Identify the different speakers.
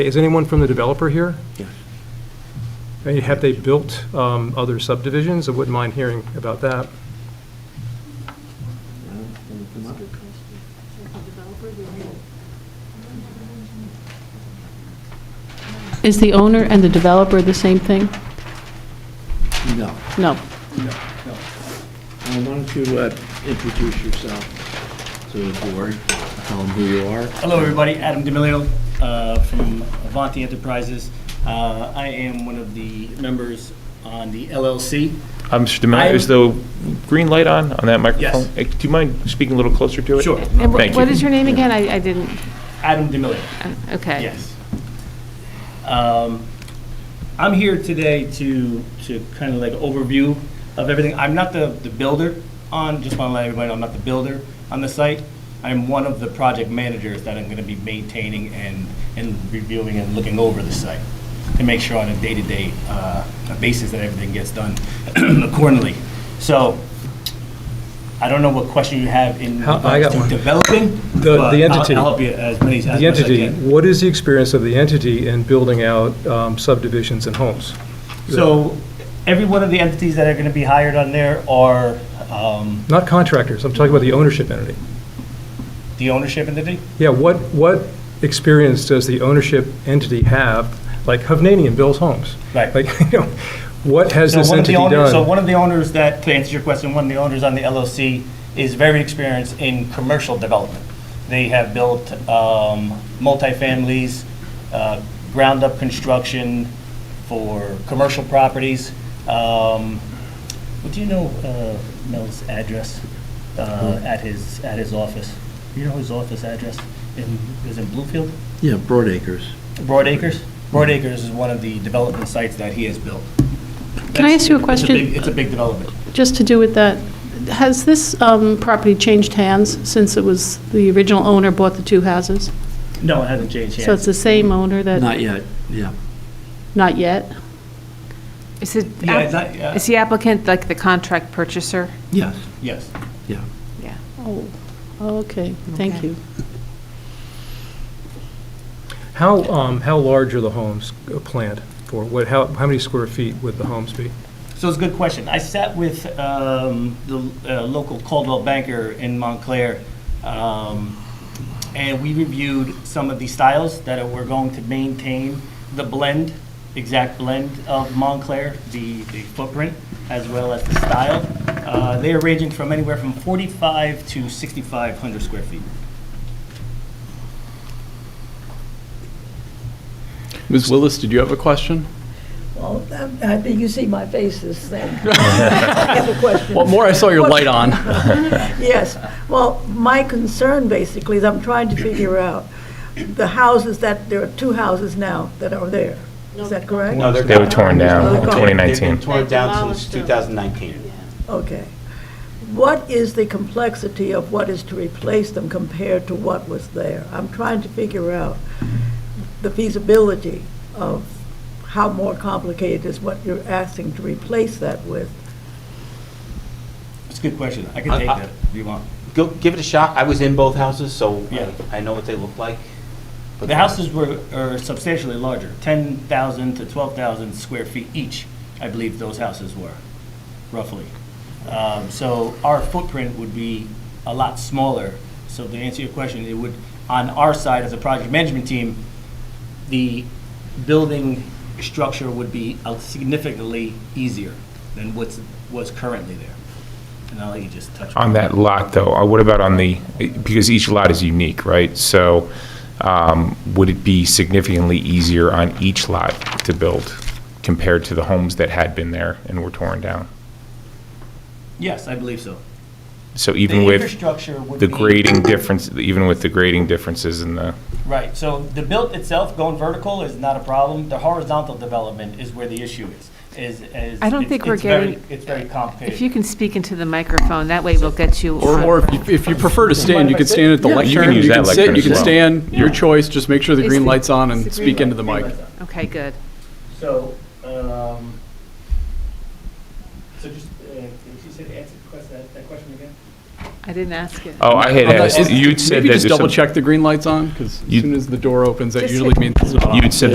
Speaker 1: Is anyone from the developer here? I mean, Have they built um, other subdivisions? I wouldn't mind hearing about that.
Speaker 2: Is the owner and the developer the same thing?
Speaker 3: No.
Speaker 2: No.
Speaker 3: Well, Why don't you uh, introduce yourself to the board, tell them who you are.
Speaker 4: Hello, everybody. Adam D'Amelio uh, from Avanti Enterprises. Uh, I am one of the members on the LLC.
Speaker 5: Um, Mr. DeMello, is the green light on, on that microphone?
Speaker 4: Yes.
Speaker 5: Eh, Do you mind speaking a little closer to it?
Speaker 4: Sure.
Speaker 2: And
Speaker 5: Thank
Speaker 2: wh-
Speaker 5: you.
Speaker 2: what is your name again? I I didn't,
Speaker 4: Adam D'Amelio.
Speaker 2: okay.
Speaker 4: Yes. Um, I'm here today to, to kind of like overview of everything. I'm not the, the builder on, just want to let everybody know, I'm not the builder on the site. I'm one of the project managers that I'm going to be maintaining and, and reviewing and looking over the site to make sure on a day-to-day uh, basis that everything gets done accordingly. So I don't know what question you have in
Speaker 1: How- I
Speaker 4: regards
Speaker 1: got one.
Speaker 4: to developing,
Speaker 1: The-
Speaker 4: but
Speaker 1: the
Speaker 4: I'll-
Speaker 1: entity.
Speaker 4: I'll help you as many as as
Speaker 1: The
Speaker 4: much as I
Speaker 1: entity,
Speaker 4: can.
Speaker 1: what is the experience of the entity in building out um, subdivisions and homes?
Speaker 4: So every one of the entities that are going to be hired on there are um,
Speaker 1: Not contractors, I'm talking about the ownership entity.
Speaker 4: the ownership entity?
Speaker 1: Yeah, what, what experience does the ownership entity have? Like Hovnanian builds homes.
Speaker 4: Right.
Speaker 1: Like, you know, what has
Speaker 4: So
Speaker 1: this
Speaker 4: one of
Speaker 1: entity
Speaker 4: the owners- So
Speaker 1: done?
Speaker 4: one of the owners that, to answer your question, one of the owners on the LLC is very experienced in commercial development. They have built um, multifamilies, uh, ground-up construction for commercial properties. Um, Do you know uh, Mel's address uh, at his, at his office? Do you know his office address? In- Is it Bluefield?
Speaker 3: Yeah, Broadacres.
Speaker 4: Broadacres? Broadacres is one of the development sites that he has built.
Speaker 2: Can I ask you a
Speaker 4: It's
Speaker 2: question?
Speaker 4: big- It's a big development.
Speaker 2: Just to do with that, has this um, property changed hands since it was, the original owner bought the two houses?
Speaker 4: No, it hasn't changed
Speaker 2: So it's
Speaker 4: hands.
Speaker 2: the same owner that?
Speaker 3: Not yet, yeah.
Speaker 2: Not yet?
Speaker 6: Is it,
Speaker 4: Yeah, it's not- yeah.
Speaker 6: is the applicant like the contract purchaser?
Speaker 3: Yes,
Speaker 4: Yes.
Speaker 3: yeah.
Speaker 6: Yeah.
Speaker 2: Oh, okay, thank
Speaker 6: Okay.
Speaker 2: you.
Speaker 1: How, um, how large are the homes planned for? What, how, how many square feet would the homes be?
Speaker 4: So it's a good question. I sat with um, the uh, local Caldwell banker in Montclair, um, and we reviewed some of the styles that we're going to maintain, the blend, exact blend of Montclair, the the footprint, as well as the style. Uh, They are ranging from anywhere from 45 to 6,500 square feet.
Speaker 7: Ms. Willis, did you have a question?
Speaker 8: Well, I I think you see my face this thing. I have a question.
Speaker 7: Well, more, I saw your light on.
Speaker 8: Yes. Well, my concern basically is I'm trying to figure out the houses that, there are two houses now that are there. Is that correct?
Speaker 9: No, they're
Speaker 5: They were torn down in
Speaker 8: They're gone.
Speaker 5: 2019.
Speaker 9: They've been torn down
Speaker 2: Demolished
Speaker 9: since
Speaker 2: them.
Speaker 9: 2019.
Speaker 8: Okay. What is the complexity of what is to replace them compared to what was there? I'm trying to figure out the feasibility of how more complicated is what you're asking to replace that with.
Speaker 4: It's a good question. I can
Speaker 9: I-
Speaker 4: take
Speaker 9: I-
Speaker 4: that if you want.
Speaker 9: Go, give it a shot. I was in both houses, so uh,
Speaker 4: Yeah.
Speaker 9: I I know what they look like. But
Speaker 4: The houses were, are substantially larger, 10,000 to 12,000 square feet each, I believe those houses were, roughly. Um, So our footprint would be a lot smaller. So to answer your question, it would, on our side as a project management team, the building structure would be uh, significantly easier than what's, was currently there. And I'll let you just touch.
Speaker 5: On that lot, though, uh, what about on the, because each lot is unique, right? So um, would it be significantly easier on each lot to build compared to the homes that had been there and were torn down?
Speaker 4: Yes, I believe so.
Speaker 5: So
Speaker 4: The
Speaker 5: even with
Speaker 4: infrastructure would
Speaker 5: the
Speaker 4: be-
Speaker 5: grading difference, even with the grading differences in the,
Speaker 4: Right, so the build itself, going vertical is not a problem. The horizontal development is where the issue is, is, is.
Speaker 6: I don't think we're
Speaker 4: it's very-
Speaker 6: getting-
Speaker 4: It's very
Speaker 6: If you
Speaker 4: complicated.
Speaker 6: can speak into the microphone, that way we'll get you.
Speaker 7: Or,
Speaker 6: on-
Speaker 7: or if you, if you prefer to stand, you can stand at the
Speaker 5: you
Speaker 7: lectern.
Speaker 5: can use
Speaker 7: You can
Speaker 5: that
Speaker 7: sit,
Speaker 5: lectern
Speaker 7: you
Speaker 5: as
Speaker 7: can
Speaker 5: well.
Speaker 7: stand, your choice. Just make sure the
Speaker 6: It's
Speaker 7: green
Speaker 6: the-
Speaker 7: light's on
Speaker 4: It's the
Speaker 7: and
Speaker 4: green
Speaker 7: speak
Speaker 4: light,
Speaker 7: into the
Speaker 4: green
Speaker 7: mic.
Speaker 4: light's on.
Speaker 6: Okay, good.
Speaker 4: So, um, so just, uh, if you said, answer the question- that, that question again?
Speaker 6: I didn't ask it.
Speaker 5: Oh, I had
Speaker 3: I'm not-
Speaker 5: asked, you'd said that.
Speaker 3: Maybe just
Speaker 5: there's some-
Speaker 3: double check the green light's on, because as
Speaker 5: You-
Speaker 3: soon as the door opens, that
Speaker 6: Just
Speaker 3: usually
Speaker 6: hit-
Speaker 3: means it's not on.
Speaker 5: You'd said